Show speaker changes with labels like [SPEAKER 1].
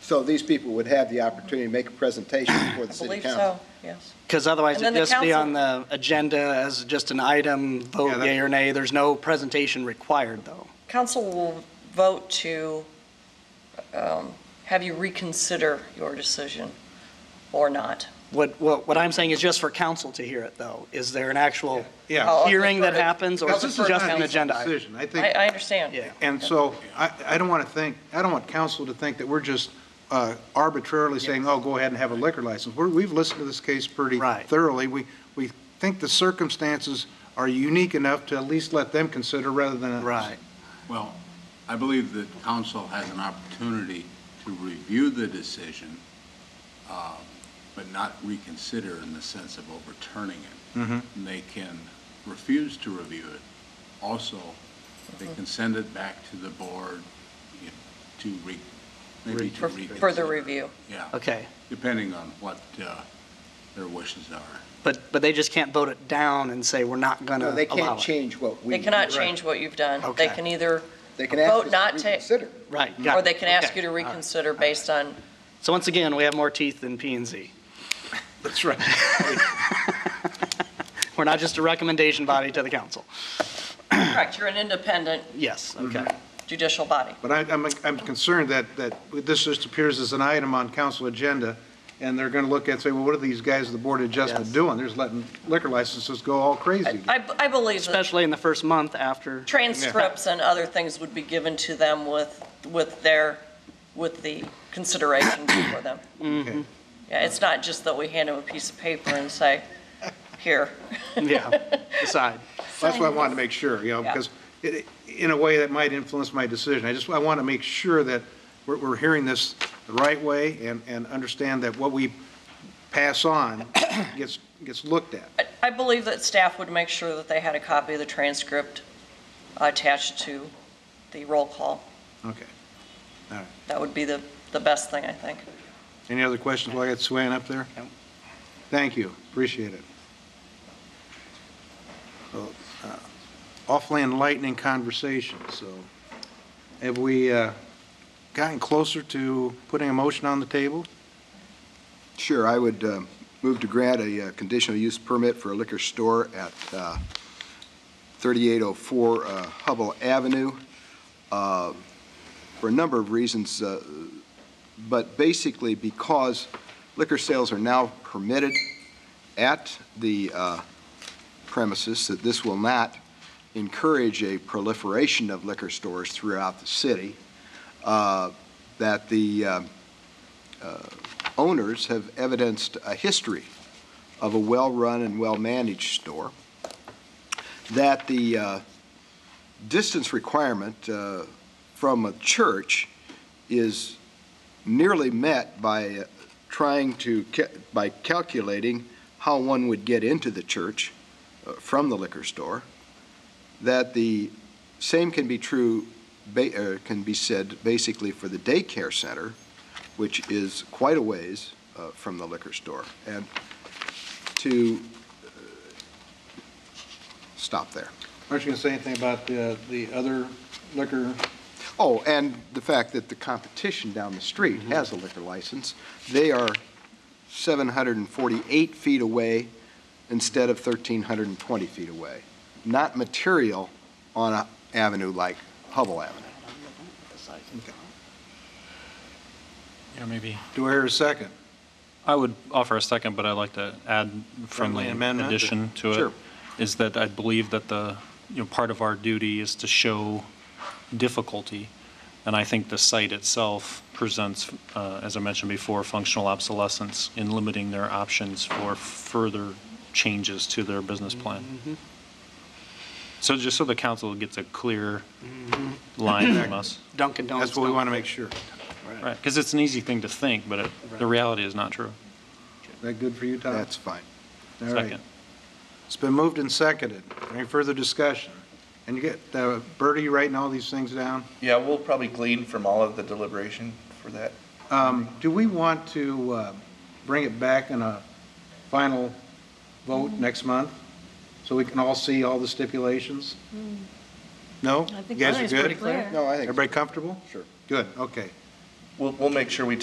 [SPEAKER 1] So these people would have the opportunity to make a presentation before the
[SPEAKER 2] I
[SPEAKER 1] city
[SPEAKER 2] believe
[SPEAKER 1] council.
[SPEAKER 2] so, yes.
[SPEAKER 3] Because otherwise
[SPEAKER 2] And
[SPEAKER 3] it'd
[SPEAKER 2] then the
[SPEAKER 3] just be on the agenda as just an item,
[SPEAKER 4] Yeah,
[SPEAKER 3] vote
[SPEAKER 4] that-
[SPEAKER 3] yea or nay. There's no presentation required, though.
[SPEAKER 2] Council will vote to um, have you reconsider your decision or not.
[SPEAKER 3] What, what, what I'm saying is just for council to hear it, though. Is there an actual
[SPEAKER 4] Yeah.
[SPEAKER 2] Oh, okay,
[SPEAKER 3] hearing that
[SPEAKER 2] perfect.
[SPEAKER 3] happens, or
[SPEAKER 4] Because
[SPEAKER 3] is
[SPEAKER 4] this
[SPEAKER 3] it
[SPEAKER 4] is
[SPEAKER 3] just
[SPEAKER 4] not
[SPEAKER 3] an
[SPEAKER 4] a
[SPEAKER 3] agenda item?
[SPEAKER 4] Decision, I
[SPEAKER 2] I,
[SPEAKER 4] think,
[SPEAKER 2] I understand.
[SPEAKER 3] Yeah.
[SPEAKER 4] and so I, I don't want to think, I don't want council to think that we're just uh, arbitrarily saying, oh, go ahead and have a liquor license. We're, we've listened to this case pretty
[SPEAKER 3] Right.
[SPEAKER 4] thoroughly. We, we think the circumstances are unique enough to at least let them consider rather than us.
[SPEAKER 3] Right.
[SPEAKER 5] Well, I believe that council has an opportunity to review the decision, um, but not reconsider in the sense of overturning it.
[SPEAKER 4] Mhm.
[SPEAKER 5] And They can refuse to review it. Also, they can send it back to the board you know, to re, maybe to
[SPEAKER 2] For
[SPEAKER 5] reconsider.
[SPEAKER 2] further review.
[SPEAKER 5] Yeah,
[SPEAKER 3] Okay.
[SPEAKER 5] depending on what uh, their wishes are.
[SPEAKER 3] But, but they just can't vote it down and say, we're not going to
[SPEAKER 1] No,
[SPEAKER 3] allow it.
[SPEAKER 1] they can't change what we.
[SPEAKER 2] They cannot
[SPEAKER 1] do.
[SPEAKER 2] change what you've done. They
[SPEAKER 3] Okay.
[SPEAKER 2] can either,
[SPEAKER 1] They can ask
[SPEAKER 2] vote
[SPEAKER 1] us
[SPEAKER 2] not
[SPEAKER 1] to
[SPEAKER 2] to-
[SPEAKER 1] reconsider.
[SPEAKER 3] Right. got
[SPEAKER 2] or
[SPEAKER 3] it.
[SPEAKER 2] they can ask
[SPEAKER 3] Okay.
[SPEAKER 2] you to
[SPEAKER 3] All right.
[SPEAKER 2] reconsider based on,
[SPEAKER 3] So once again, we have more teeth than P and Z.
[SPEAKER 4] That's right.
[SPEAKER 3] We're not just a recommendation body to the council.
[SPEAKER 2] correct, you're an independent
[SPEAKER 3] Yes, okay.
[SPEAKER 2] Mm-hmm. judicial body.
[SPEAKER 4] But I, I'm, I'm concerned that, that this just appears as an item on council agenda, and they're going to look at, and say, well, what are these guys at the Board of Adjustment
[SPEAKER 3] Yes.
[SPEAKER 4] doing? They're just letting liquor licenses go all crazy.
[SPEAKER 2] I, I believe that
[SPEAKER 3] Especially in the first month after.
[SPEAKER 2] transcripts and other things would be given to them with, with their, with the consideration for them.
[SPEAKER 3] mm-hmm.
[SPEAKER 4] Okay.
[SPEAKER 2] Yeah, it's not just that we hand them a piece of paper and say, here.
[SPEAKER 3] Yeah, decide.
[SPEAKER 4] That's what I wanted to make sure, you know,
[SPEAKER 2] Yeah.
[SPEAKER 4] because it, in a way, that might influence my decision. I just, I want to make sure that we're, we're hearing this the right way and, and understand that what we pass on gets, gets looked at.
[SPEAKER 2] I- I believe that staff would make sure that they had a copy of the transcript attached to the roll call.
[SPEAKER 4] Okay.
[SPEAKER 2] That would be the, the best thing, I think.
[SPEAKER 4] Any other questions while I got Swain up there?
[SPEAKER 3] Nope.
[SPEAKER 4] Thank you, appreciate it. So, uh, Awfully enlightening conversation, so have we uh, gotten closer to putting a motion on the table?
[SPEAKER 1] Sure, I would uh, move to grant a uh, conditional use permit for a liquor store at uh, 3804 uh, Hubble Avenue uh, for a number of reasons, uh, but basically because liquor sales are now permitted at the uh, premises, that this will not encourage a proliferation of liquor stores throughout the city, uh, that the uh, owners have evidenced a history of a well-run and well-managed store, that the uh, distance requirement uh, from a church is nearly met by uh, trying to, ca- by calculating how one would get into the church uh, from the liquor store, that the same can be true, ba- uh, can be said basically for the daycare center, which is quite a ways uh, from the liquor store. And to uh, stop there.
[SPEAKER 4] Aren't you going to say anything about the, the other liquor?
[SPEAKER 1] Oh, and the fact that the competition down the street has a liquor license. They are 748 feet away instead of 1,320 feet away. Not material on an avenue like Hubble Avenue.
[SPEAKER 6] Yeah, maybe.
[SPEAKER 4] Do I hear a second?
[SPEAKER 6] I would offer a second, but I'd like to add
[SPEAKER 4] Friendly
[SPEAKER 6] friendly
[SPEAKER 4] amendment?
[SPEAKER 6] addition to it. Is
[SPEAKER 4] Sure.
[SPEAKER 6] that I believe that the, you know, part of our duty is to show difficulty. And I think the site itself presents, uh, as I mentioned before, functional obsolescence in limiting their options for further changes to their business plan.
[SPEAKER 4] Mm-hmm.
[SPEAKER 6] So just so the council gets a clear
[SPEAKER 4] Mm-hmm.
[SPEAKER 6] line from us.
[SPEAKER 3] Dunkin' Donuts.
[SPEAKER 4] That's what we
[SPEAKER 3] don't-
[SPEAKER 4] want to make sure.
[SPEAKER 6] Right, because it's an easy thing to think, but it- the reality is not true.
[SPEAKER 4] Is that good for you, Tom?
[SPEAKER 1] That's fine.
[SPEAKER 4] All right.
[SPEAKER 6] Second.
[SPEAKER 4] It's been moved and seconded. Any further discussion? And you get, uh, Bertie, you writing all these things down?
[SPEAKER 7] Yeah, we'll probably glean from all of the deliberation for that.
[SPEAKER 4] Um, Do we want to uh, bring it back in a final vote
[SPEAKER 1] Mm-hmm.
[SPEAKER 4] next month? So we can all see all the stipulations? No? You guys are good?
[SPEAKER 1] No, Mm. I think.
[SPEAKER 4] Everybody comfortable?
[SPEAKER 1] Sure.
[SPEAKER 4] Good, okay.
[SPEAKER 7] We'll, we'll make sure we